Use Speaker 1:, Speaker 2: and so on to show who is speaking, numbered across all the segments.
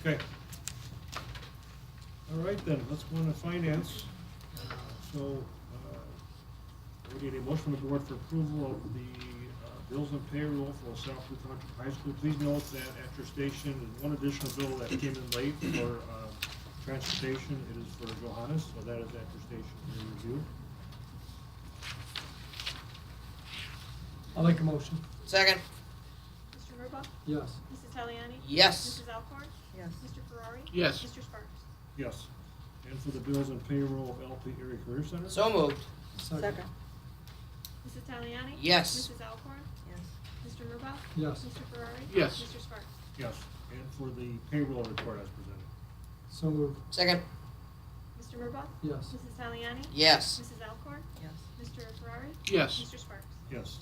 Speaker 1: Okay. All right then, let's go on to finance. Uh, So, uh, we need a motion from the board for approval of the uh, bills and payroll for South Blue Country High School. Please note that at your station, there's one additional bill that came in late for uh, transportation. It is for Johannes, so that is at your station for review.
Speaker 2: I'll make a motion.
Speaker 3: Second.
Speaker 4: Mr. Murbaugh?
Speaker 2: Yes.
Speaker 4: Mrs. Taliani?
Speaker 3: Yes.
Speaker 4: Mrs. Alcorn?
Speaker 5: yes,
Speaker 4: Mr. Ferrari?
Speaker 6: Yes.
Speaker 4: Mr. Sparks?
Speaker 1: Yes. And for the bills and payroll of LP Erie Career Center?
Speaker 3: So moved.
Speaker 5: second,
Speaker 4: Mrs. Taliani?
Speaker 3: Yes.
Speaker 4: Mrs. Alcorn?
Speaker 5: yes,
Speaker 4: Mr. Murbaugh?
Speaker 2: Yes.
Speaker 4: Mr. Ferrari?
Speaker 6: Yes.
Speaker 4: Mr. Sparks?
Speaker 1: Yes. And for the payroll report as presented?
Speaker 2: So moved.
Speaker 3: Second.
Speaker 4: Mr. Murbaugh?
Speaker 2: Yes.
Speaker 4: Mrs. Taliani?
Speaker 3: Yes.
Speaker 4: Mrs. Alcorn?
Speaker 5: yes,
Speaker 4: Mr. Ferrari?
Speaker 6: Yes.
Speaker 4: Mr. Sparks?
Speaker 1: Yes.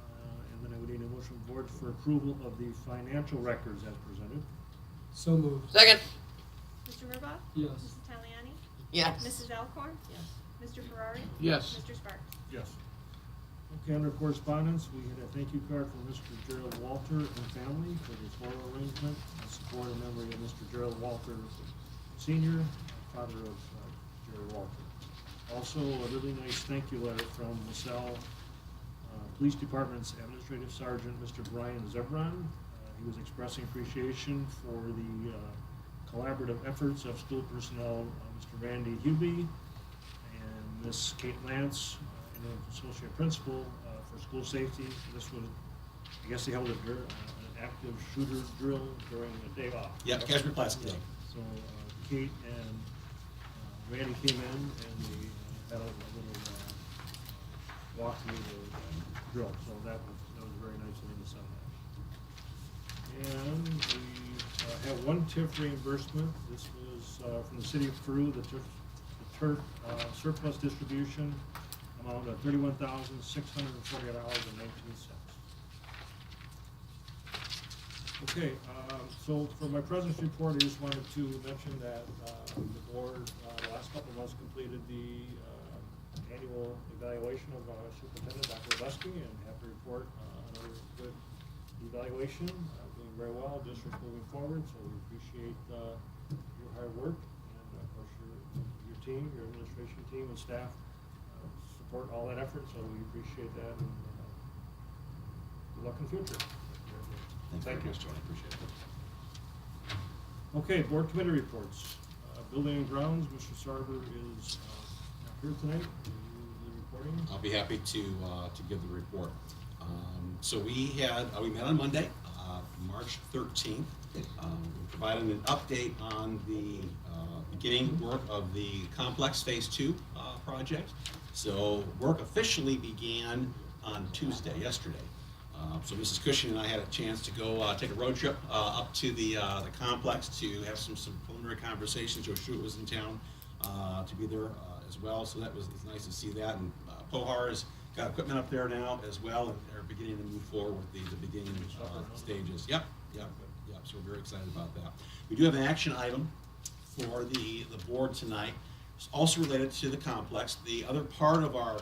Speaker 1: Uh, And then I would need a motion from board for approval of the financial records as presented.
Speaker 2: So moved.
Speaker 3: Second.
Speaker 4: Mr. Murbaugh?
Speaker 2: Yes.
Speaker 4: Mrs. Taliani?
Speaker 3: Yes.
Speaker 4: Mrs. Alcorn?
Speaker 5: yes,
Speaker 4: Mr. Ferrari?
Speaker 6: Yes.
Speaker 4: Mr. Sparks?
Speaker 1: Yes. Okay, under correspondence, we had a thank you card from Mr. Gerald Walter and family for the floral arrangement in support and memory of Mr. Gerald Walter Senior, father of uh, Gerald Walter. Also, a really nice thank you letter from LaSalle uh, Police Department's Administrative Sergeant, Mr. Brian Zebron. Uh, He was expressing appreciation for the uh, collaborative efforts of school personnel, uh, Mr. Randy Hubie, and Miss Kate Lance, uh, and an associate principal uh, for school safety. This was, I guess they held a drill, an active shooter drill during the day off.
Speaker 7: Yeah, Casper Classic Day.
Speaker 1: So uh, Kate and uh, Randy came in and they uh, had a little uh, walk through the uh, drill, so that was, that was very nice of them to send that. And we uh, have one TIF reimbursement, this was uh, from the city of Peru, the TIF, the TIF uh, surplus distribution amount of thirty-one thousand, six hundred and forty dollars and nineteen cents. Okay, um, so for my president's report, I just wanted to mention that uh, the board, uh, the last couple of months completed the uh, annual evaluation of our superintendent, Dr. Leski, and have to report uh, another good evaluation, uh, doing very well, district moving forward, so we appreciate uh, your hard work, and of course, your, your team, your administration team and staff uh, support all that effort, so we appreciate that, and uh, good luck in the future.
Speaker 7: Thank you very much, Tony, appreciate it.
Speaker 1: Okay, board committee reports. Uh, Building and grounds, Mr. Sarver is uh, not here tonight. Will you do the reporting?
Speaker 7: I'll be happy to, uh, to give the report. Um, so we had, uh, we met on Monday, uh, March thirteenth. Um, we provided an update on the, uh, beginning work of the complex phase two, uh, project. So work officially began on Tuesday, yesterday. Uh, So Mrs. Cushing and I had a chance to go uh, take a road trip uh, up to the, uh, the complex to have some, some preliminary conversations. Joe Schuett was in town uh, to be there uh, as well, so that was, it's nice to see that. And uh, Pohar's got equipment up there now as well, and they're beginning to move forward with the, the beginning uh, stages. Yep, yep, yep, so we're very excited about that. We do have an action item for the, the board tonight. It's also related to the complex. The other part of our,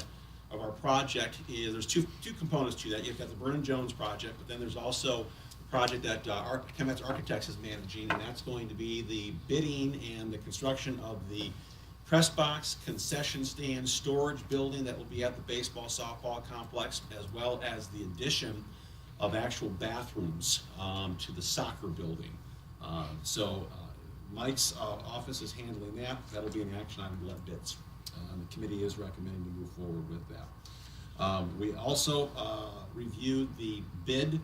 Speaker 7: of our project is, there's two, two components to that. You've got the Vernon Jones project, but then there's also the project that uh, Arch- Chemex Architects is managing, and that's going to be the bidding and the construction of the press box, concession stand, storage building that will be at the baseball softball complex, as well as the addition of actual bathrooms um, to the soccer building. Uh, So uh, Mike's uh, office is handling that. That'll be an action item, we'll have bids. Uh, The committee is recommending to move forward with that. Um, We also uh, reviewed the bid,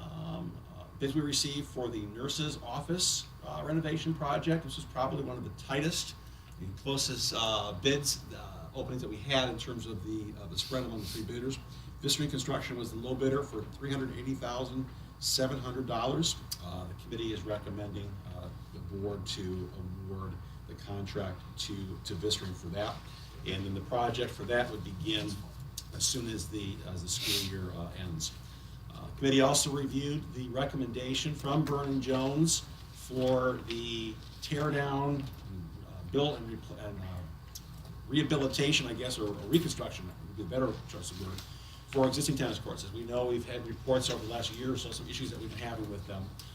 Speaker 7: um, uh, bids we received for the nurse's office uh, renovation project. This was probably one of the tightest and closest uh, bids, uh, openings that we had in terms of the, uh, the spread among the three bidders. Vistry Construction was the low bidder for three hundred eighty thousand, seven hundred dollars. Uh, the committee is recommending, uh, the board to award the contract to, to Vistry for that. And then the project for that would begin as soon as the, as the school year, uh, ends. Uh, Committee also reviewed the recommendation from Vernon Jones for the tear down, uh, built and repl- and, uh, rehabilitation, I guess, or or reconstruction, would be a better choice of word, for existing tennis courts. As we know, we've had reports over the last year or so, some issues that we've been having with them. Uh,